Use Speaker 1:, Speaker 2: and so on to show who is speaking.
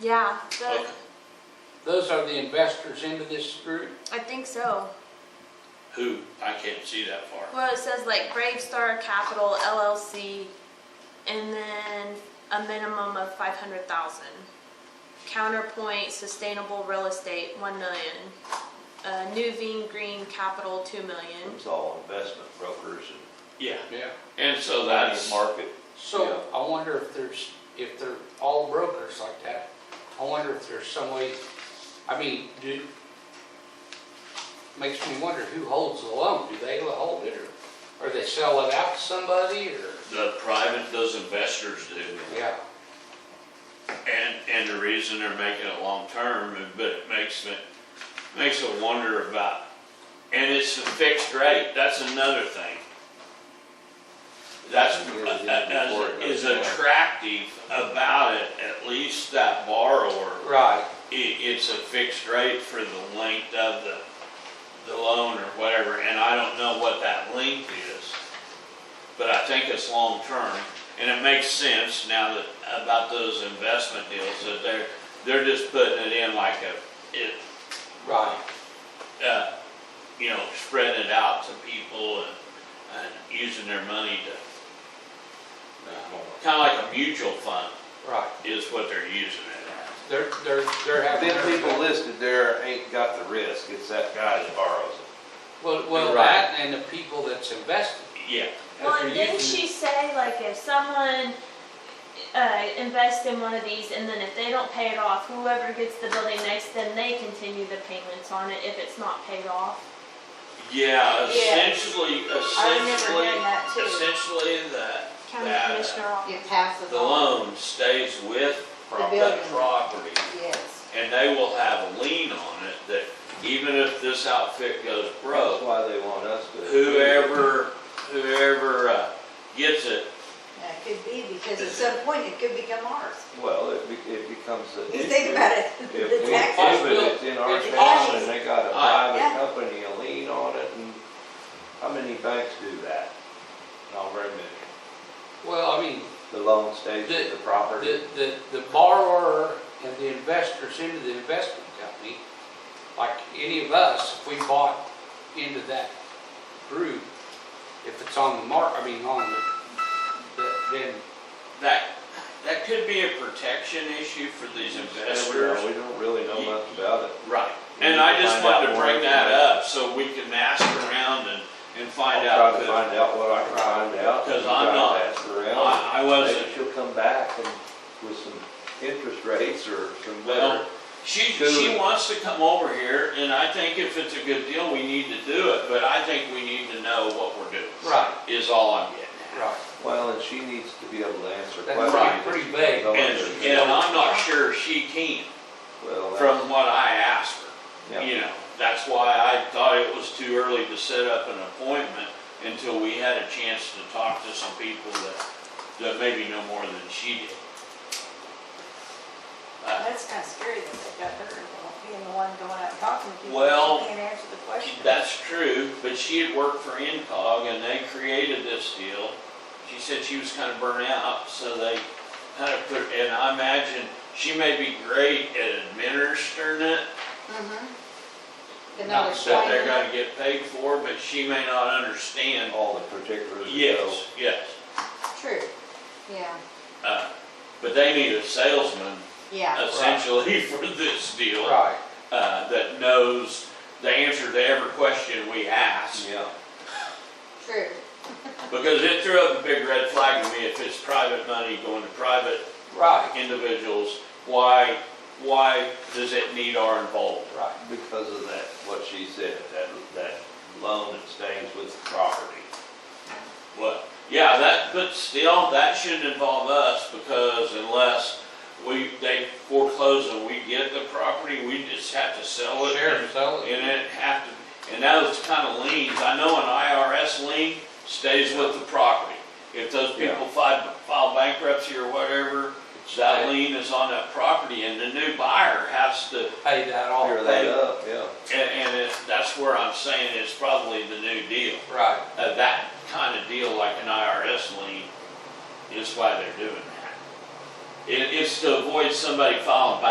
Speaker 1: Yeah, the,
Speaker 2: Okay. Those are the investors into this group?
Speaker 1: I think so.
Speaker 2: Who? I can't see that far.
Speaker 1: Well, it says like Gravestar Capital LLC, and then a minimum of five hundred thousand. Counterpoint Sustainable Real Estate one million. Uh, Nuveen Green Capital two million.
Speaker 3: It's all investment brokers and
Speaker 2: Yeah. Yeah. And so that's,
Speaker 3: market.
Speaker 2: so
Speaker 3: Yeah.
Speaker 2: I wonder if there's, if they're all brokers like that. I wonder if there's some way, I mean, do, makes me wonder who holds the loan? Do they hold it or, or they sell it out to somebody or?
Speaker 4: The private, those investors do.
Speaker 2: Yeah,
Speaker 4: And, and the reason they're making it long-term, but it makes me, makes a wonder about, and it's a fixed rate, that's another thing. That's, that is attractive about it, at least that borrower,
Speaker 2: right.
Speaker 4: it, it's a fixed rate for the length of the, the loan or whatever, and I don't know what that length is. But I think it's long-term, and it makes sense now that, about those investment deals, that they're, they're just putting it in like a, it,
Speaker 2: Right.
Speaker 4: uh, you know, spreading it out to people and, and using their money to, kinda like a mutual fund
Speaker 2: Right.
Speaker 4: is what they're using it
Speaker 2: They're, they're, they're having.
Speaker 3: Them people listed there ain't got the risk, it's that guy that borrows it.
Speaker 2: Well, well,
Speaker 3: Right.
Speaker 2: that and the people that's invested.
Speaker 4: at. Yeah,
Speaker 1: Well,
Speaker 2: If
Speaker 1: and
Speaker 2: you
Speaker 1: didn't
Speaker 2: can-
Speaker 1: she say like if someone uh, invests in one of these and then if they don't pay it off, whoever gets the building next, then they continue the payments on it if it's not paid off.
Speaker 4: Yeah,
Speaker 5: Yeah.
Speaker 4: essentially,
Speaker 5: I remember
Speaker 4: essentially,
Speaker 5: hearing that too.
Speaker 4: essentially that,
Speaker 1: County
Speaker 4: That-
Speaker 1: Commissioner office.
Speaker 5: It passes
Speaker 4: the
Speaker 5: on,
Speaker 4: loan stays with
Speaker 5: The
Speaker 4: the
Speaker 5: building.
Speaker 4: property.
Speaker 5: yes.
Speaker 4: And they will have a lien on it that even if this outfit goes
Speaker 3: That's
Speaker 4: broke,
Speaker 3: why they want us to.
Speaker 4: whoever, whoever uh, gets it,
Speaker 5: Now, It could be because at some point it could become ours.
Speaker 3: Well, it, be- it becomes an
Speaker 5: You
Speaker 3: issue.
Speaker 5: think about it,
Speaker 3: If we
Speaker 5: the
Speaker 3: do
Speaker 5: taxes.
Speaker 3: it, it's in our
Speaker 2: It's
Speaker 3: town
Speaker 5: always-
Speaker 3: and they got a
Speaker 4: Aye.
Speaker 3: private
Speaker 5: Yeah.
Speaker 3: company, a lien on it and how many banks do that? Not very many.
Speaker 2: Well, I mean,
Speaker 3: The loan stays with the property.
Speaker 2: The, the, the borrower and the investors into the investment company, like any of us, if we bought into that group, if it's on the mark, I mean, on the, the- then,
Speaker 4: that, that could be a protection issue for these investors.
Speaker 3: We don't really know much about it.
Speaker 4: Right,
Speaker 3: We need
Speaker 4: and
Speaker 3: to
Speaker 4: I just
Speaker 3: find
Speaker 4: wanted
Speaker 3: out
Speaker 4: to
Speaker 3: more
Speaker 4: bring that
Speaker 3: information.
Speaker 4: up so we can ask around and, and find
Speaker 3: I'll
Speaker 4: out.
Speaker 3: Try to
Speaker 4: 'cause
Speaker 3: find out what I can find out.
Speaker 4: Because
Speaker 3: and
Speaker 4: I'm
Speaker 3: try to
Speaker 4: not-
Speaker 3: Ask around.
Speaker 4: I I
Speaker 3: Maybe
Speaker 4: wasn't,
Speaker 3: she'll come back and with some interest rates or some
Speaker 4: well,
Speaker 3: better.
Speaker 4: she, she
Speaker 3: Good.
Speaker 4: wants to come over here and I think if it's a good deal, we need to do it, but I think we need to know what we're doing.
Speaker 2: right,
Speaker 4: Is all I'm getting
Speaker 2: right.
Speaker 3: Well, and she needs to be able to answer
Speaker 2: That's
Speaker 3: questions.
Speaker 2: right, pretty vague.
Speaker 3: Go
Speaker 4: at. And,
Speaker 3: into the-
Speaker 4: and I'm not sure she can
Speaker 3: Well, that's-
Speaker 4: from what I asked her.
Speaker 3: yeah.
Speaker 4: You know, that's why I thought it was too early to set up an appointment until we had a chance to talk to some people that, that maybe know more than she did. Uh,
Speaker 5: That's kind of scary that they got her involved, being the one going out and talking to people.
Speaker 4: Well,
Speaker 5: She can't answer the question.
Speaker 4: That's true, but she had worked for Incog and they created this deal. She said she was kind of burnt out, so they kind of put, and I imagine she may be great at administering it,
Speaker 5: Mhm.
Speaker 4: Mm-hmm.
Speaker 5: But
Speaker 2: Not
Speaker 5: not
Speaker 4: that they're
Speaker 5: explaining it.
Speaker 4: gonna get paid for, but she may not understand.
Speaker 3: All the particulars. so-
Speaker 4: Yes, yes.
Speaker 5: True, yeah,
Speaker 4: Uh, But they need a salesman
Speaker 5: yeah.
Speaker 4: essentially for this deal.
Speaker 2: Right,
Speaker 4: uh, That knows the answer to every question we ask.
Speaker 3: Yeah,
Speaker 5: True.
Speaker 4: Because it threw up a big red flag to me if it's private money going to private
Speaker 2: right,
Speaker 4: individuals, why, why does it need our involvement?
Speaker 2: right.
Speaker 3: because of that, what she said, that, that loan that stays with the property.
Speaker 4: Well, yeah, that, but still, that shouldn't involve us because unless we, they foreclose and we get the property, we just have to sell it.
Speaker 2: Share and sell it.
Speaker 4: And it have to, and those kind of liens, I know an IRS lien stays with the property. If those people file, file bankruptcy or whatever, that lien is on that property and the new buyer has to,
Speaker 2: Pay that
Speaker 4: Oh,
Speaker 2: off.
Speaker 3: Clear that up, yeah.
Speaker 4: and, and it- that's where I'm saying it's probably the new deal.
Speaker 2: Right,
Speaker 4: Uh, that kind of deal like an IRS lien is why they're doing that. It, it's to avoid somebody filing bankruptcy